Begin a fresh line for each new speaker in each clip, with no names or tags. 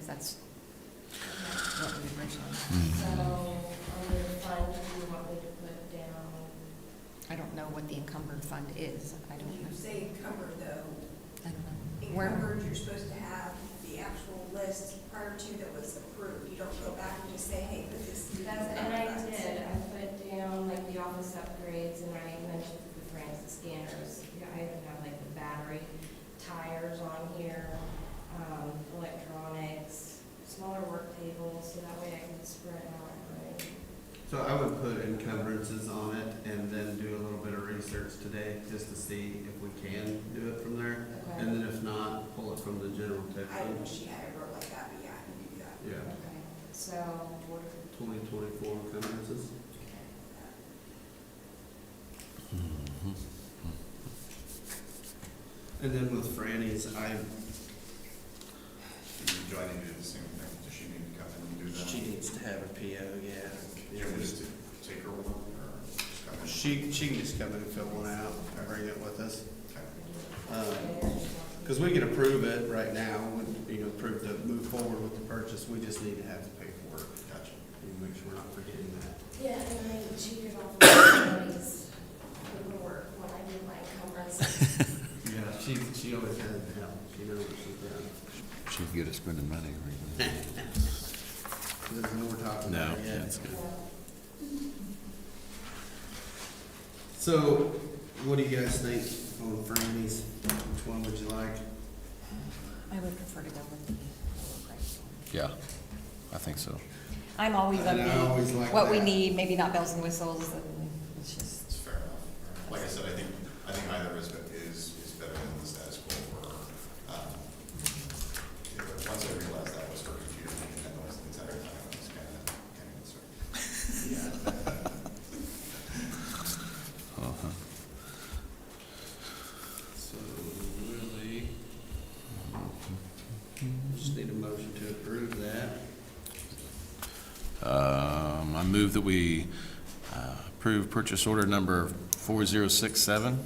that's what we originally,
So, on the fund, do you want me to put down?
I don't know what the encumbered fund is, I don't
When you
know,
say encumbered though,
I don't know. Where,
encumbered, you're supposed to have the actual list prior to that was approved. You don't go back and just say, hey, put this.
That's, and I did, I put down like the office upgrades and I mentioned the Francis scanners. Yeah, I even have like the battery tires on here, um, electronics, smaller work tables, so that way I can spread out, right?
So I would put encumbrances on it and then do a little bit of research today just to see if we can do it from there.
Okay,
And then if not, pull it from the general tech
I
fund.
wish you had it wrote like that, but yeah, I can do that.
Yeah,
okay, so what if?
twenty twenty-four encumbrances.
Uh,
And then with Franny's, I,
Do I need to do the same thing? Does she need to come in and do that?
she needs to have a PO, yeah.
Can we just take her one or just come in?
She, she can just come in and fill one out and bring it with us.
Okay.
Um, Because we can approve it right now, and, you know, approve to move forward with the purchase, we just need to have the paperwork. Gotcha. And make sure we're not forgetting that.
Yeah, and then I cheated off the employees paperwork when I did my conference.
Yeah, she, she always has help, she knows what she's done.
She'd get us spending money or anything.
She doesn't know we're talking
No,
about it yet.
that's good.
So, what do you guys think on Franny's, which one would you like?
I would prefer to go with the lower price one.
Yeah, I think so.
I'm always
And I always
upbeat,
like
what we
that.
need, maybe not bells and whistles, and it's just,
It's fair enough. Like I said, I think, I think either is, is, is better than the status quo for, um, you know, but once I realized that was her computer making that noise the entire time, I was kind of, kind of concerned.
Uh-huh.
So, really, just need a motion to approve that.
Um, I move that we uh, approve purchase order number 4067.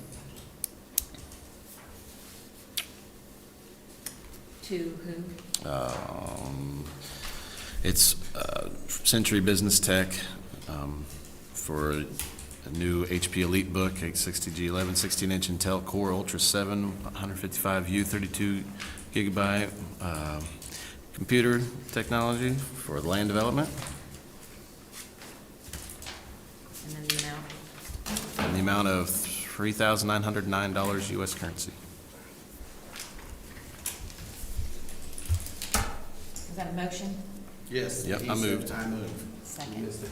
to who?
Um, It's uh, Century Business Tech um, for a new HP Elite Book, 860G11, 16-inch Intel Core Ultra 7, 155U, 32 gigabyte um, computer technology for land development
And then the amount.
in the amount of $3,909 US currency.
Is that a motion?
Yes.
Yep, I
he said,
moved.
I moved. You
Second.
missed it.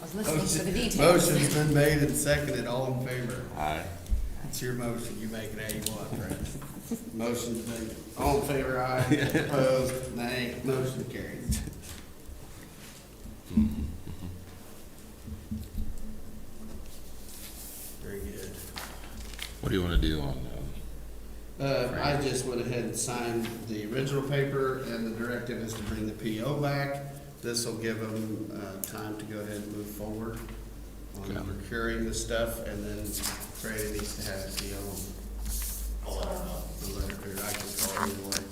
I was listening for the details.
Motion's been made and seconded, all in favor.
Aye.
It's your motion, you make it how you want, Brent. Motion's made, all in favor, aye, opposed, nay, motion carries. Very good.
What do you want to do on,
Uh, I just went ahead and signed the original paper, and the directive is to bring the PO back. This will give them, uh, time to go ahead and move forward
Okay.
on procuring the stuff, and then Brady needs to have the PO
I'll let her know.
the letter, or I can call you one.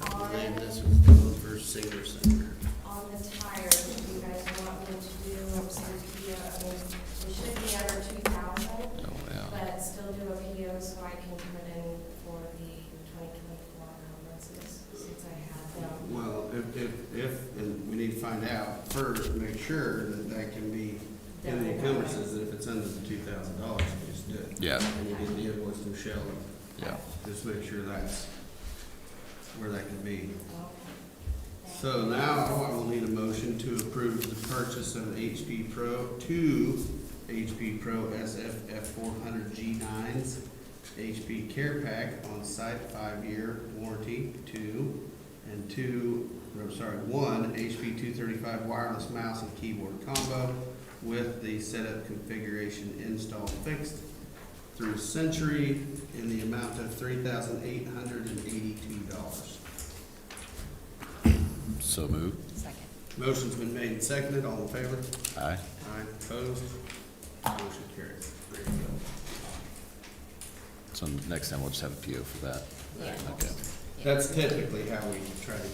I believe
On-
this was done for senior center.
On the tires, if you guys want me to do, some PO, I mean, it should be under two thousand,
um, oh, yeah.
but still do a PO so I can put in for the twenty twenty-four conferences, since I have them.
Well, if, if, if, and we need to find out first, make sure that that can be in the encumbrances, and if it's under the two thousand dollars, we just do it.
Yeah,
And you get the invoice from Shell,
yeah.
just make sure that's where that can be.
Okay.
So now I will need a motion to approve the purchase of HP Pro, two HP Pro SFF four hundred G nines, HP Care Pack on site five-year warranty, two, and two, or sorry, one HP two thirty-five wireless mouse and keyboard combo with the setup configuration install fixed through Century in the amount of three thousand eight hundred and eighty-two dollars.
So moved.
Second.
Motion's been made and seconded, all in favor?
Aye.
Aye. Opposed? Motion carries. There you
So next time we'll just have a PO for that.
go.
Yeah.
Okay.
Yeah.
That's typically how we try to